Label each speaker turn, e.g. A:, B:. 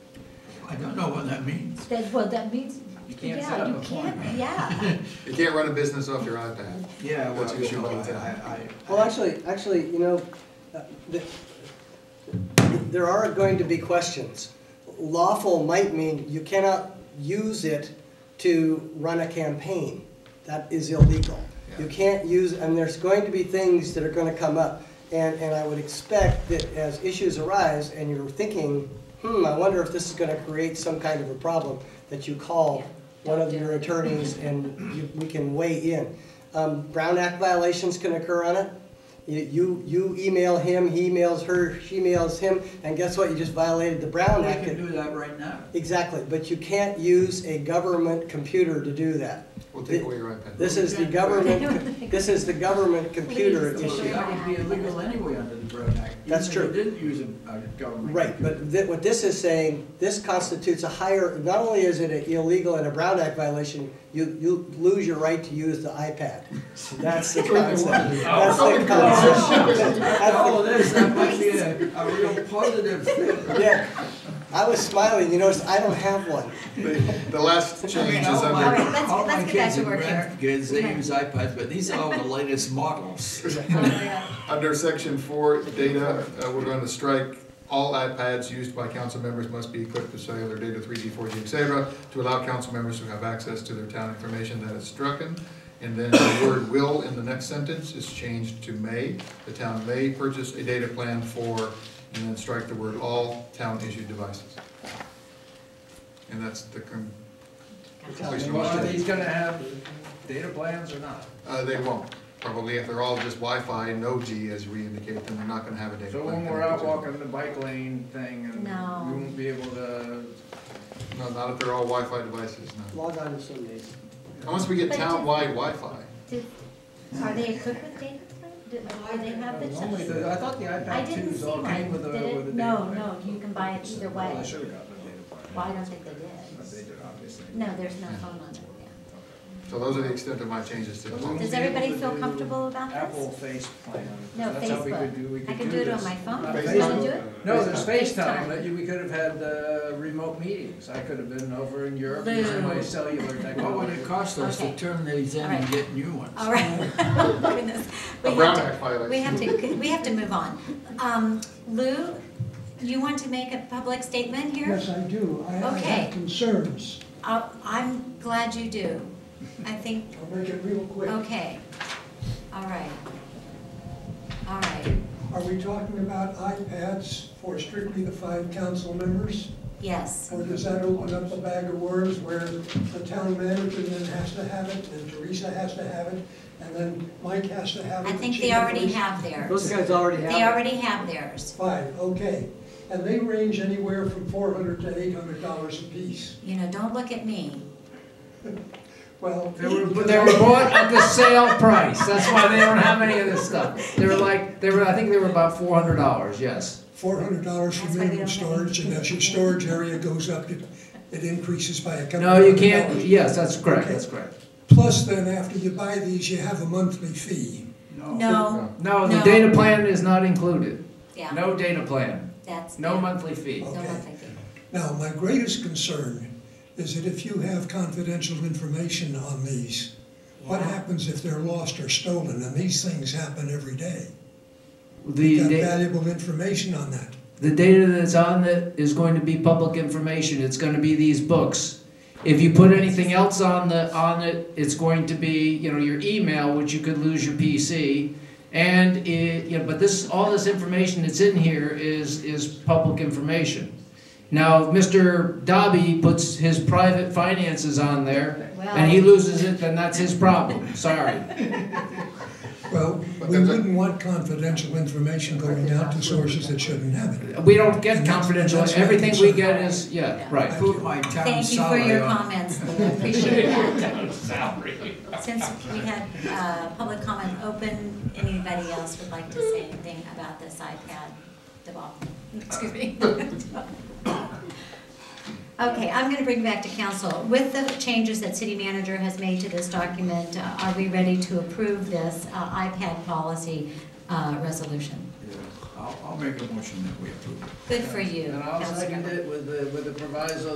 A: I don't know what that means.
B: That, well, that means,
A: You can't set
B: yeah,
A: up
B: you
A: a
B: can't,
A: form.
B: yeah.
C: You can't run a business off your iPad.
A: Yeah, well,
C: That's what
A: you
C: you
A: know,
C: want
A: I,
C: to-
A: I, I.
D: Well, actually, actually, you know, uh, th- there are going to be questions. Lawful might mean you cannot use it to run a campaign. That is illegal. You
C: Yeah.
D: can't use, and there's going to be things that are gonna come up. And, and I would expect that as issues arise and you're thinking, hmm, I wonder if this is gonna create some kind of a problem, that you call
B: Yeah,
D: one of
B: don't do
D: your
B: it.
D: attorneys and you, we can weigh in. Um, Brown Act violations can occur on it. You- You, you email him, he emails her, she emails him, and guess what? You just violated the Brown
A: We
D: Act.
A: can do that right now.
D: Exactly, but you can't use a government computer to do that.
C: We'll take away your iPad.
D: This is the government, this is the government computer
B: Please,
D: issue.
B: don't.
A: That would be illegal anyway under the Brown Act. even
D: That's
A: if
D: true.
A: you didn't use a a government.
D: Right, but thi- what this is saying, this constitutes a higher, not only is it illegal and a Brown Act violation, you, you lose your right to use the iPad. That's the concept, that's the concept. That's the-
A: All of this, that might be a, a real positive thing.
D: Yeah, I was smiling, you notice I don't have one.
C: The the last change is
A: All my-
C: under,
E: let's-
A: all my
E: let's get back
A: kids
E: to
A: and
E: work here.
A: grandkids, they use iPads, but these are all the latest models.
C: under section four, data, uh, we're going to strike, all iPads used by council members must be equipped with cellular data, 3G, 4G, et cetera, to allow council members to have access to their town information that is stricken. And then the word will in the next sentence is changed to may. The town may purchase a data plan for, and then strike the word all town-issued devices. And that's the, com-
A: Are these gonna have data plans or not?
C: Uh, they won't, probably if they're all just Wi-Fi, no G as we indicate, then they're not gonna have a data
F: So
C: plan.
F: when we're out walking the bike lane thing and
E: No.
F: we won't be able to,
C: No, not if they're all Wi-Fi devices, no.
D: Log on to some days.
C: Unless we get
E: But it doesn't-
C: town-wide Wi-Fi.
E: Did- Are they equipped with data plan? Did- Do they have the?
F: only the, I thought the
E: I
F: iPad
E: didn't
F: twos
E: see
F: all came
E: one,
F: with a,
E: did
F: with a data
E: it?
F: plan.
E: No, no, you can buy it either
F: Well, I
E: way.
F: should've gotten the data plan.
E: Well, I don't think they did.
F: But they did, obviously.
E: No, there's no phone on it, yeah.
C: So those are the extent of my changes to the law.
E: Does everybody feel comfortable about this?
F: Apple Face Plan.
E: No,
F: That's how we could do- we
E: Facebook. I
F: could
E: can
F: do
E: do it on
F: this.
E: my phone.
F: Uh,
E: You
C: Facebook.
E: can do it?
F: No, there's
E: FaceTime.
F: FaceTime, but you- we could have had, uh, remote meetings. I could have been over in Europe
E: Lou.
F: using my cellular
A: What would
F: technology.
A: it cost us to
E: Okay.
A: turn these in and
E: Alright.
A: get new ones?
E: All right. Oh, goodness. We
C: A
E: have
C: Brown
E: to-
C: Act violation.
E: We have to, we have to move on. Um, Lou, you want to make a public statement here?
G: Yes, I do. I I
E: Okay.
G: have concerns.
E: Uh, I'm glad you do. I think
G: I'll make it real quick.
E: Okay, all right. All right,
G: Are we talking about iPads for strictly the five council members?
E: yes,
G: Or does that open up a bag of worms where the town manager then has to have it, and Teresa has to have it, and then Mike has to have it?
E: I
G: the
E: think
G: chief
E: they
G: of
E: already
G: police?
E: have
D: Those
E: theirs.
D: guys already have.
E: They
D: it.
E: already have theirs,
G: Five, okay. And they range anywhere from four hundred to eight hundred dollars apiece.
E: you know, don't look at me.
G: Well.
F: They were, they were bought at the sale price, that's why they don't have any of this stuff. They were like, they were, I think they were about four hundred dollars, yes.
G: four hundred dollars for
E: That's why we
G: minimum
E: don't have
G: storage, and as your storage area goes up, it, it increases by a couple
F: No, you
G: hundred
F: can't,
G: dollars.
F: yes, that's correct, that's correct.
G: Plus, then, after you buy these, you have a monthly fee.
E: No,
F: No, the
E: No.
F: data plan is not included.
E: yeah,
F: No data plan,
E: that's.
F: no monthly fee.
E: No monthly fee.
G: Now, my greatest concern is that if you have confidential information on these, what happens if they're lost or stolen? And these things happen every day.
F: The,
G: You've got
F: da-
G: valuable information on that.
F: the data that's on it is going to be public information, it's gonna be these books. If you put anything else on the, on it, it's going to be, you know, your email, which you could lose your PC. And it, you know, but this, all this information that's in here is, is public information. Now, if Mr. Dobby puts his private finances on there, and he
E: Well-
F: loses it, then that's his problem, sorry.
G: Well,
C: But
G: we
C: there's a-
G: wouldn't want confidential information going out to sources that shouldn't have it.
F: We don't get
G: And that's-
F: confidential,
G: that's my
F: everything we
G: concern.
F: get is, yeah,
E: Yeah.
F: right.
A: Put my town
E: Thank you for
A: salary
E: your
A: on.
E: comments, Lou, I appreciate that. Since we had, uh, public comment open, anybody else would like to say anything about this iPad debacle? Excuse me. Okay, I'm gonna bring back to council. With the changes that city manager has made to this document, uh, are we ready to approve this uh, iPad policy, uh, resolution?
A: Yeah, I'll, I'll make a motion that we approve it.
E: Good for you,
F: And I'll
E: Councilmember.
F: second it with the, with the proviso